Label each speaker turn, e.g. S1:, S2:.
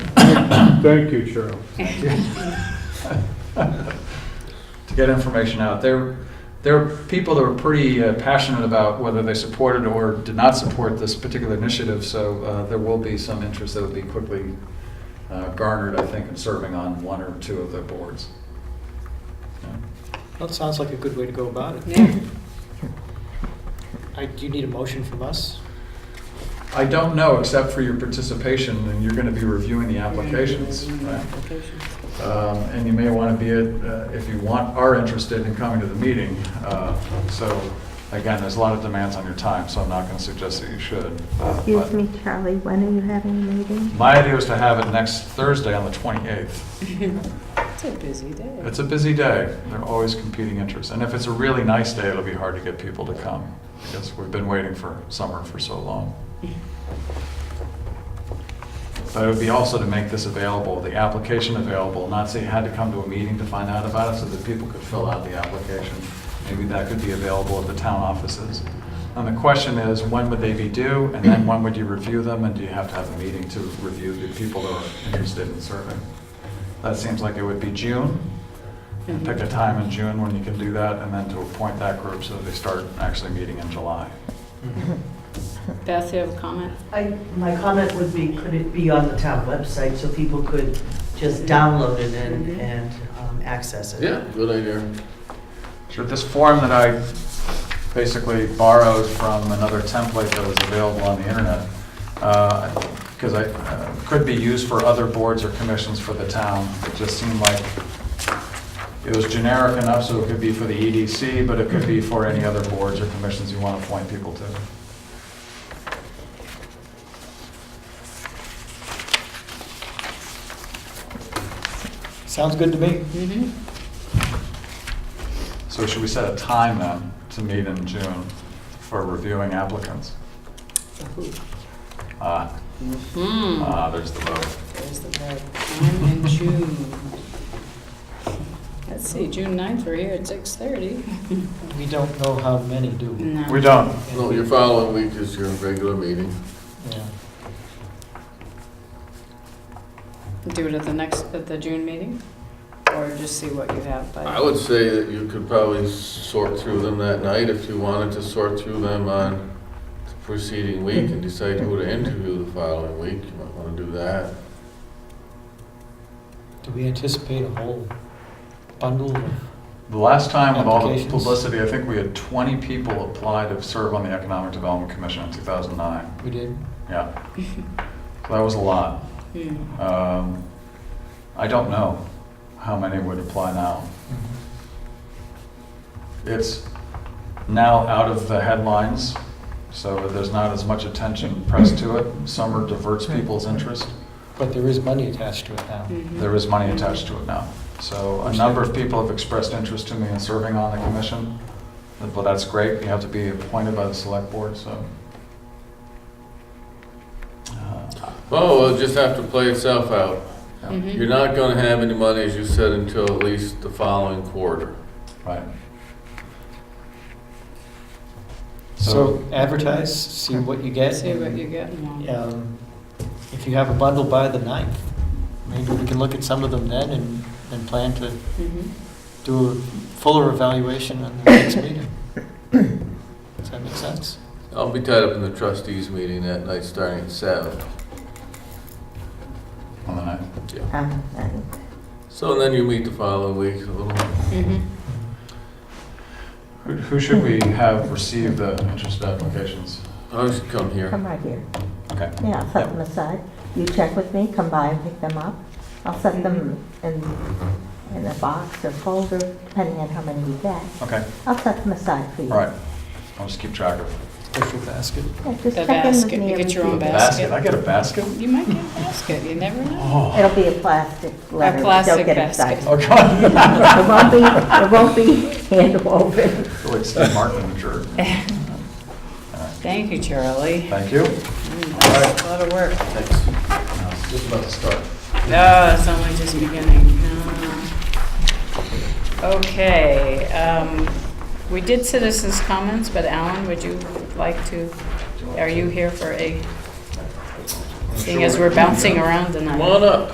S1: Thank you, Charles.
S2: to get information out. There, there were people that were pretty uh, passionate about whether they supported or did not support this particular initiative, so uh, there will be some interest that will be quickly uh, garnered, I think, in serving on one or two of the boards. Yeah.
S3: That sounds like a good way to go about it.
S4: Yeah.
S3: I, do you need a motion from us?
S2: I don't know, except for your participation, and you're going to be reviewing the applications, right?
S4: Applications.
S2: Um, And you may want to be, at, uh, if you want, are interested in coming to the meeting. Uh, So, again, there's a lot of demands on your time, so I'm not going to suggest that you should. uh,
S5: Excuse
S2: but-
S5: me, Charlie, when are you having a meeting?
S2: My idea was to have it next Thursday on the 28th.
S4: It's a busy day.
S2: It's a busy day. There are always competing interests. And if it's a really nice day, it'll be hard to get people to come because we've been waiting for summer for so long.
S4: Mm-hmm.
S2: But it would be also to make this available, the application available, not say you had to come to a meeting to find out about it so that people could fill out the application. Maybe that could be available at the town offices. And the question is, when would they be due? And then when would you review them? And do you have to have a meeting to review the people that are interested in serving? That seems like it would be June. And Pick a time in June when you can do that and then to appoint that group so that they start actually meeting in July.
S4: Mm-hmm. Beth, you have a comment?
S6: I, my comment would be, could it be on the town website so people could just download it and,
S4: Mhm.
S6: and um, access it?
S7: Yeah, good idea.
S2: Sure, this form that I basically borrowed from another template that was available on the internet, because I, uh, could be used for other boards or commissions for the town. It just seemed like it was generic enough, so it could be for the EDC, but it could be for any other boards or commissions you want to appoint people to.
S3: Sounds good to me.
S4: Mm-hmm.
S2: So should we set a time then to meet in June for reviewing applicants? Ah,
S4: Hmm,
S2: ah, there's the vote.
S4: there's the red. I'm in June. Let's see, June 9th, we're here at 6:30.
S3: We don't know how many do. we?
S4: No.
S2: We don't.
S7: No, your following week is your regular meeting.
S3: Yeah.
S4: Do it at the next, at the June meeting? Or just see what you have by.
S7: I would say that you could probably sort through them that night if you wanted to sort through them on the preceding week and decide who to interview the following week. You might want to do that.
S3: Do we anticipate a whole bundle? of-
S2: The last time with all the
S3: Applications.
S2: publicity, I think we had 20 people apply to serve on the Economic Development Commission in 2009.
S3: We did?
S2: Yeah. So that was a lot.
S4: Hmm.
S2: Um, I don't know how many would apply now.
S4: Mm-hmm.
S2: It's now out of the headlines, so there's not as much attention pressed to it. Summer diverts people's interest.
S3: But there is money attached to it now.
S4: Mhm.
S2: There is money attached to it now. So a number of people have expressed interest to me in serving on the commission. Well, that's great. You have to be appointed by the select board, so. Uh,
S7: Oh, it'll just have to play itself out.
S4: Mhm.
S7: You're not going to have any money, as you said, until at least the following quarter.
S2: Right.
S3: So advertise, see what you get.
S4: See what you get. and we'll-
S3: Um, If you have a bundle by the 9th, maybe we can look at some of them then and, and plan to
S4: Mhm.
S3: do a fuller evaluation on the next meeting. Does that make sense?
S7: I'll be tied up in the trustees meeting that night, starting at seven.
S2: On the ninth.
S5: Um, and-
S7: So then you meet the following week, a little
S4: Mhm.
S2: Who- Who should we have receive the interest applications?
S7: I should come here.
S5: Come right here.
S2: Okay.
S5: Yeah, I'll set them aside. You check with me, come by and pick them up. I'll set them in, in a box or folder, depending on how many you get.
S2: Okay,
S5: I'll set them aside for you.
S2: all right. I'll just keep track of.
S3: Special basket.
S5: Yeah, just
S4: The
S5: check in with
S4: basket.
S5: me
S4: You
S5: every
S4: get your own
S5: few days.
S2: I get a basket?
S4: You might get a basket, you never know.
S2: Oh,
S5: It'll be a plastic letter.
S4: plastic
S5: Don't get
S4: basket.
S5: excited.
S2: oh, God.
S5: It won't be, it won't be hand woven.
S2: Like Steve Martin, in the jerk.
S4: Thank you, Charlie.
S2: Thank you. Uh,
S4: That's a lot of work.
S7: Thanks.
S2: Just about to start.
S4: No, it's only just beginning. No. Okay, um, we did citizens' comments, but Alan, would you like to, are you here for a, seeing as we're bouncing around tonight?
S7: Come on up.